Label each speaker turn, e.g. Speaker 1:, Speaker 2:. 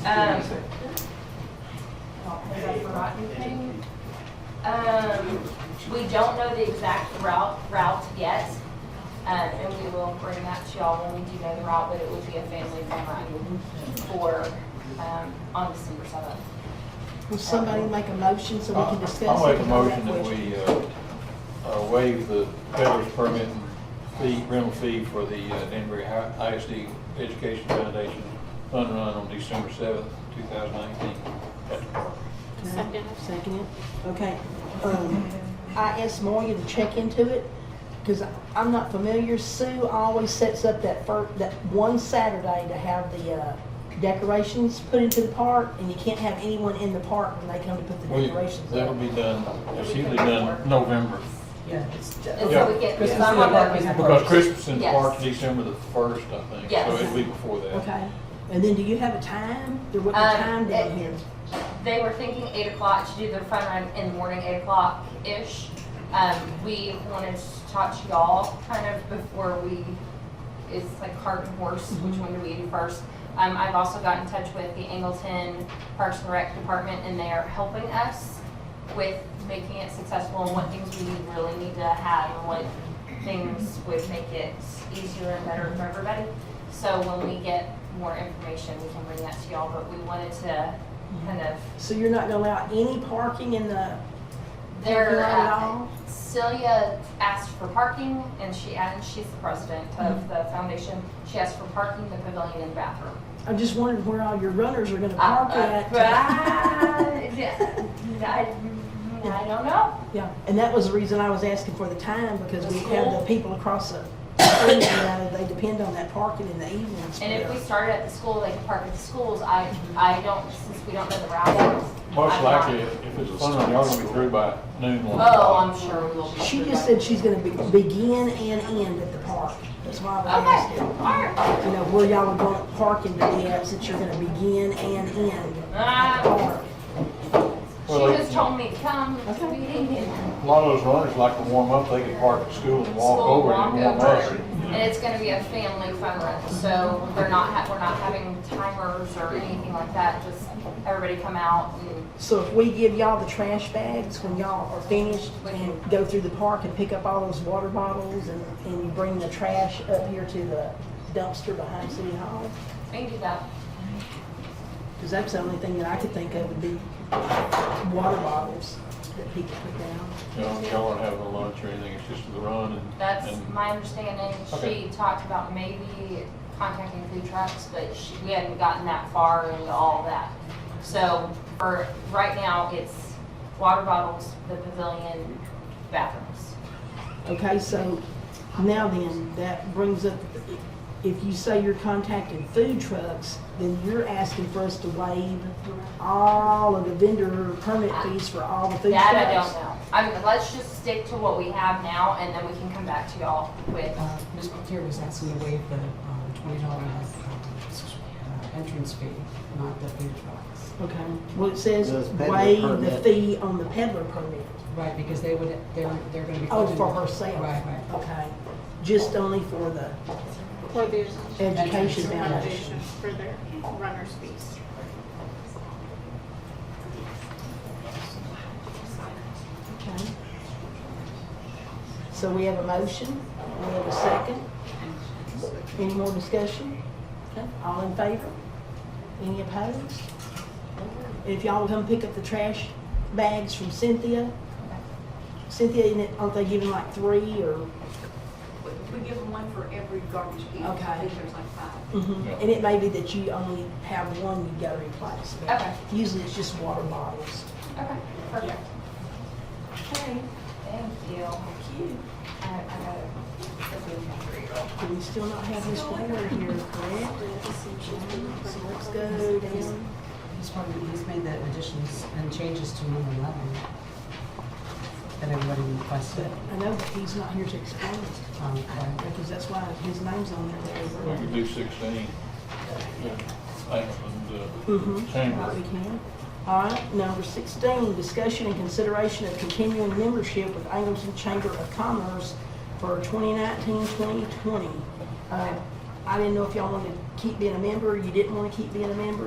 Speaker 1: Um, Have I forgotten anything? Um, we don't know the exact route, route yet, um, and we will bring that to y'all when we do know the route, but it would be a family fun ride for, um, on December seventh.
Speaker 2: Will somebody make a motion so we can discuss it?
Speaker 3: I'll make a
Speaker 2: and all that
Speaker 3: motion that
Speaker 2: question?
Speaker 3: we uh, uh, waive the peddler's permit and fee, rental fee for the uh, Denver Hi- ISD Education Foundation Fund Run on December seventh, two thousand nineteen.
Speaker 2: Second. Second it, okay. Um, I asked Moya to check into it, because I'm not familiar. Sue always sets up that fir, that one Saturday to have the uh, decorations put into the park, and you can't have anyone in the park when they come to put the decorations
Speaker 3: That'll
Speaker 2: up.
Speaker 3: be done, it's usually done November,
Speaker 4: Yeah, it's, uh,
Speaker 1: And
Speaker 3: Yeah.
Speaker 4: ju-
Speaker 1: so we get.
Speaker 4: Christmas
Speaker 1: so I'm
Speaker 4: in the
Speaker 1: on
Speaker 4: park is
Speaker 1: that.
Speaker 3: because Christmas in the
Speaker 1: Yes.
Speaker 3: park's December the first, I think, so
Speaker 1: Yes.
Speaker 3: it'll be before that.
Speaker 2: Okay, and then do you have a time? There wasn't
Speaker 1: Um,
Speaker 2: a time down
Speaker 1: it-
Speaker 2: here.
Speaker 1: They were thinking eight o'clock to do their fun run in the morning, eight o'clock-ish. Um, we wanted to talk to y'all kind of before we, it's like cart and horse, which one do we do first? Um, I've also got in touch with the Angleton Parks and Rec Department and they are helping us with making it successful and what things we really need to have and what things would make it easier and better for everybody. So when we get more information, we can bring that to y'all, but we wanted to kind of
Speaker 2: So you're not gonna allow any parking in the
Speaker 1: They're,
Speaker 2: Not at all?
Speaker 1: uh, Celia asked for parking and she, and she's the president
Speaker 2: Mm-hmm.
Speaker 1: of the foundation. She asked for parking, the pavilion and bathroom.
Speaker 2: I just wondered where all your runners are gonna
Speaker 1: Uh,
Speaker 2: park
Speaker 1: uh,
Speaker 2: at.
Speaker 1: but I I- I don't know.
Speaker 2: Yeah, and that was the reason I was asking for the time, because
Speaker 1: The
Speaker 2: we have
Speaker 1: school?
Speaker 2: the people across the, street, you know, they depend on that parking in the evenings.
Speaker 1: And if we started at the school, they could park at the schools. I, I don't, since we don't know the route.
Speaker 3: Most
Speaker 1: I'm not-
Speaker 3: likely, if it's fun, run, y'all gonna be through by noon one.
Speaker 1: Oh, I'm sure we will. be
Speaker 2: She
Speaker 1: through
Speaker 2: just
Speaker 1: by-
Speaker 2: said she's gonna be, begin and end at the park, that's why I was
Speaker 1: Okay,
Speaker 2: asking.
Speaker 1: all right.
Speaker 2: You know, where y'all are going to park in the depths, that you're gonna begin and end at the
Speaker 1: Ah,
Speaker 2: park.
Speaker 1: She
Speaker 3: Well,
Speaker 1: just told me to come to the
Speaker 2: Okay.
Speaker 1: meeting and
Speaker 3: A lot of those runners like to warm up, they can park at school and walk
Speaker 1: school
Speaker 3: over
Speaker 1: walk
Speaker 3: and warm
Speaker 1: over.
Speaker 3: up.
Speaker 1: And it's gonna be a family fun run, so they're not, ha- we're not having timers or anything like that, just everybody come out and,
Speaker 2: So if we give y'all the trash bags when y'all are finished and go through the park and pick up all those water bottles and, and you bring the trash up here to the dumpster behind City Hall?
Speaker 1: we can do that.
Speaker 2: Because that's the only thing that I could think of would be water bottles that people put down.
Speaker 3: You know, y'all aren't having a lunch or anything, it's just the run and.
Speaker 1: That's
Speaker 3: and-
Speaker 1: my understanding. She
Speaker 3: Okay.
Speaker 1: talked about maybe contacting food trucks, but she, we hadn't gotten that far into all that. So for, right now, it's water bottles, the pavilion, bathrooms.
Speaker 2: Okay, so now then, that brings up, if you say you're contacting food trucks, then you're asking for us to waive all of the vendor permit fees for all the food trucks.
Speaker 1: That I don't know. I mean, let's just stick to what we have now and then we can come back to y'all with
Speaker 4: uh, Ms. McCure was asking to waive the um, twenty dollar uh, entrance fee, not the food trucks.
Speaker 2: Okay, well, it says
Speaker 5: Those peddler
Speaker 2: waive the
Speaker 5: permit.
Speaker 2: fee on the peddler permit.
Speaker 4: Right, because they would, they're, they're gonna be.
Speaker 2: Oh, for
Speaker 4: open-
Speaker 2: herself.
Speaker 4: Right, right.
Speaker 2: Okay, just only for the
Speaker 6: for their
Speaker 2: education foundation.
Speaker 6: foundation, for their runner's fees.
Speaker 2: Okay. So we have a motion, we have a second. Any more discussion? Okay. All in favor? Any opposed? If y'all will come pick up the trash bags from Cynthia. Cynthia, isn't it- aren't they giving like three or?
Speaker 7: We we give them one for every garbage can.
Speaker 2: Okay.
Speaker 7: I think there's like five.
Speaker 3: Yeah.
Speaker 2: Mm-hmm. And it may be that you only have one you gotta replace. but
Speaker 1: Okay.
Speaker 2: Usually it's just water bottles.
Speaker 1: Okay, perfect. Okay, thank you. Thank you. I, I got it.
Speaker 2: Do we still not have this board here, correct? Let's go down.
Speaker 4: He's probably, he's made the additions and changes to number eleven that everybody requested.
Speaker 2: I know, but he's not here to explain it,
Speaker 4: Um, but-
Speaker 2: because that's why his name's on
Speaker 3: We
Speaker 2: there.
Speaker 3: could do sixteen. Lakeland, uh,
Speaker 2: Mhm. Right, we
Speaker 3: Chamber.
Speaker 2: can. All right, number sixteen, discussion and consideration of continuing membership with Angleton Chamber of Commerce for 2019-2020. Uh, I didn't know if y'all wanted to keep being a member, you didn't want to keep being a member,